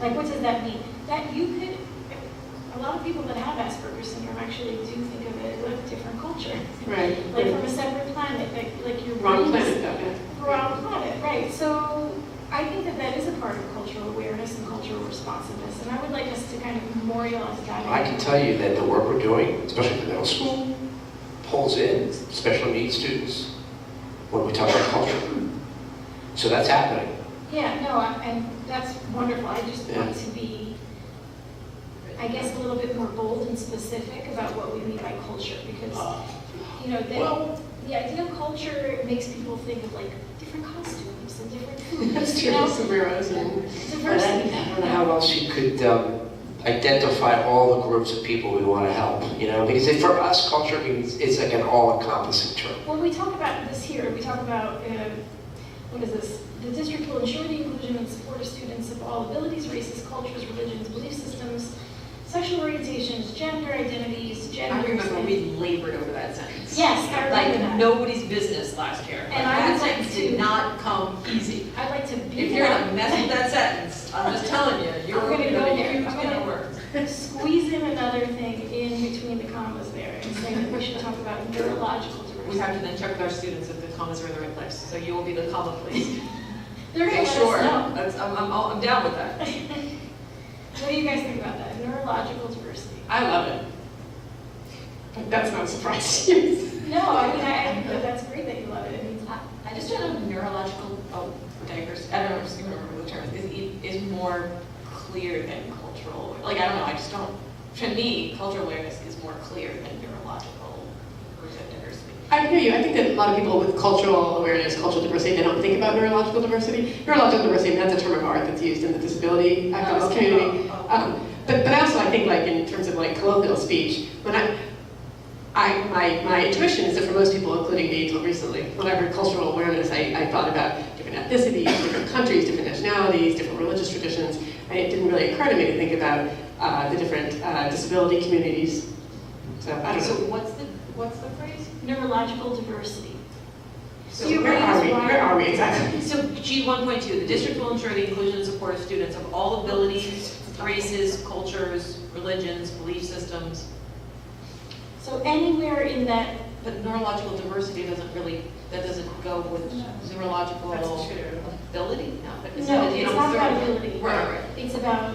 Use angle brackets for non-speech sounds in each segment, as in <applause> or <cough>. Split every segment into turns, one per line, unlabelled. Like, what does that mean? That you could, a lot of people that have Asperger's syndrome actually do think of it with a different culture.
Right.
Like from a separate planet, like, like your
Wrong
brain is-
planet, though,
Wrong planet, right. So I think that that is a part of cultural awareness and cultural responsiveness. And I would like us to kind of memorialize that.
I can tell you that the work we're doing, especially at the middle school, pulls in special needs students when we talk about culture. So that's happening.
Yeah, no, I- and that's wonderful. I just want to be, I guess, a little bit more bold and specific about what we mean by culture
Uh,
because, you know,
Well-
the, the idea of culture makes people think of like different costumes and different
<laughs>
foods.
yeah. That's
you
true,
know?
sombreros and,
But I
Diversity.
I don't know how else you could um, identify all the groups of people we want to help, you know? Because if- for us, culture means, it's like an all-encompassing term.
When we talk about this here, we talk about, uh, what is this? The district will ensure the inclusion and support of students of all abilities, races, cultures, religions, belief systems, sexual orientations, gender identities,
I
genders.
remember
and-
we labored over that sentence.
Yes, I remember
Like
that.
nobody's business last year. Like,
And I
That
would like
sentence
to-
did not come easy.
I'd like to
If
beef
you're
it
gonna
up,
mess with that sentence, I'm just telling you, you're
I'm
gonna
gonna
get
go
a
there.
huge
I'm
amount
gonna-
of words.
squeeze in another thing in between the commas there and say that we should talk about neurological
We
diversity.
have to then check with our students if the commas are in the right place, so you will be the comma please.
<laughs> They're gonna let us <laughs>
Sure,
know.
that's, I'm, I'm, all- I'm down with that.
What do you guys think about that? Neurological diversity?
I love it. But that's not surprising.
No, I mean, I, I think that that's great that you love it. It means
I I just don't know if neurological oh, diversity, I don't know, I'm just gonna remember the term, is, e- is more clear than cultural, like, I don't know, I just don't, to me, cultural awareness is more clear than neurological groups of diversity.
I hear you, I think that a lot of people with cultural awareness, cultural diversity, they don't think about neurological diversity. Neurological diversity, that's a term of art that's used in the disability activist
okay.
community.
Oh, oh.
Um, But, but also, I think like in terms of like colloquial speech, when I, I, my, my intuition is that for most people, including me until recently, when I heard cultural awareness, I, I thought about different ethnicities, different countries, different nationalities, different religious traditions, and it didn't really occur to me to think about uh, the different uh, disability communities. So I don't
So
know.
what's the, what's the phrase?
Neurological diversity.
So
you
where
raise
are we?
one-
Where are we exactly?
So G one point two, the district will ensure the inclusion and support of students of all abilities, races, cultures, religions, belief systems,
So anywhere in that,
but neurological diversity doesn't really, that doesn't go with neurological ability, no, but it's.
no,
you
it's
know,
not about
neuro-
ability.
Right, right.
It's about,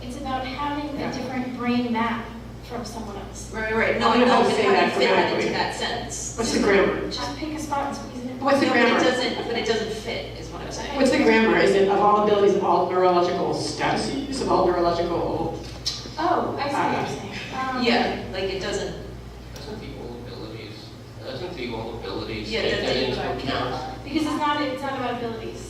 it's about having a
Yeah.
different brain map from someone else.
Right, right, no,
I
I
don't know
know,
how to
but
say
how do you
that
fit that
grammatically.
into that sentence?
What's the grammar?
Just pick a spot and squeeze it in.
What's the
No, but it
grammar?
doesn't, but it doesn't fit, is what I'm saying.
What's the grammar? Is it of all abilities, of all neurological statuses, of all neurological?
Oh, I see what you're saying. Um,
Yeah, like it doesn't,
Doesn't the all abilities, doesn't the all abilities
yeah,
take that
it
into
doesn't.
account?
Because it's not, it's not about abilities.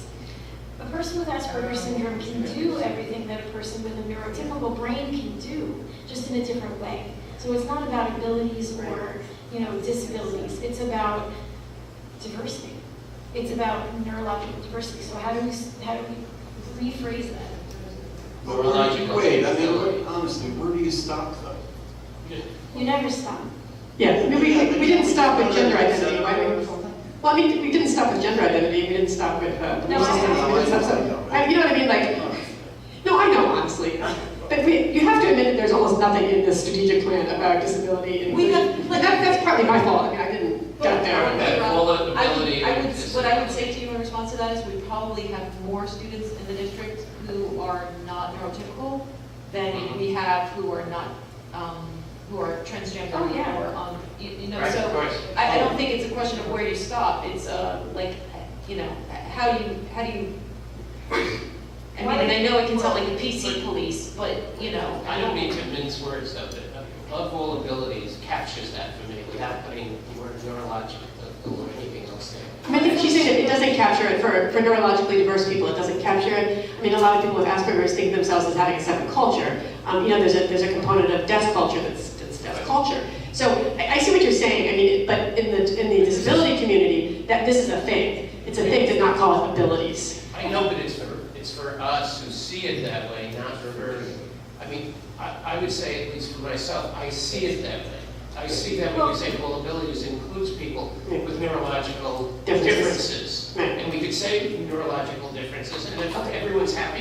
A person with Asperger's syndrome can do everything that a person with a neurotypical brain can do, just in a different way. So it's not about abilities or, you know, disabilities, it's about diversity. It's about neurological diversity, so how do we, s- how do we rephrase that?
Neurological
Wait, I mean,
disability.
what- honestly, where do you stop though?
You never stop.
Yeah, I mean, we, we didn't stop with gender identity, why we?
we?
Well, I mean, we didn't stop with gender identity, we didn't stop with, uh,
No,
belief
I-
systems, we didn't stop, so, I- you know what I mean, like, no, I know, honestly. But we, you have to admit that there's almost nothing in this strategic plan about disability and
We have-
inclusion. But that, that's partly my fault, I mean, I didn't get there.
That all
I would,
ability
I would,
and
what I would say to you in response to that is we probably have more students in the district who are not neurotypical
Mm-hmm.
than we have who are not, um, who are transgender
Oh, yeah.
or on, you you know,
Right, of
so
course.
I, I don't think it's a question of where you stop, it's, uh, like, you know, how do you, how do you, I mean, and I know it can sound like a PC police, but, you know,
I don't mean to mince words though, but uh, above all abilities captures that for me without putting the word neurological or anything else there.
I mean, I think she's saying that it doesn't capture it for, for neurologically diverse people, it doesn't capture it. I mean, a lot of people with Asperger's think of themselves as having a separate culture. Um, you know, there's a, there's a component of deaf culture that's, that's deaf culture. So I, I see what you're saying, I mean, but in the, in the disability community, that this is a thing. It's a thing to not call it abilities.
I know, but it's for, it's for us who see it that way, not for her. I mean, I, I would say, at least for myself, I see it that way. I see that when you say all abilities includes people with neurological
Differences.
differences.
Right.
And we could say neurological differences, and if everyone's happy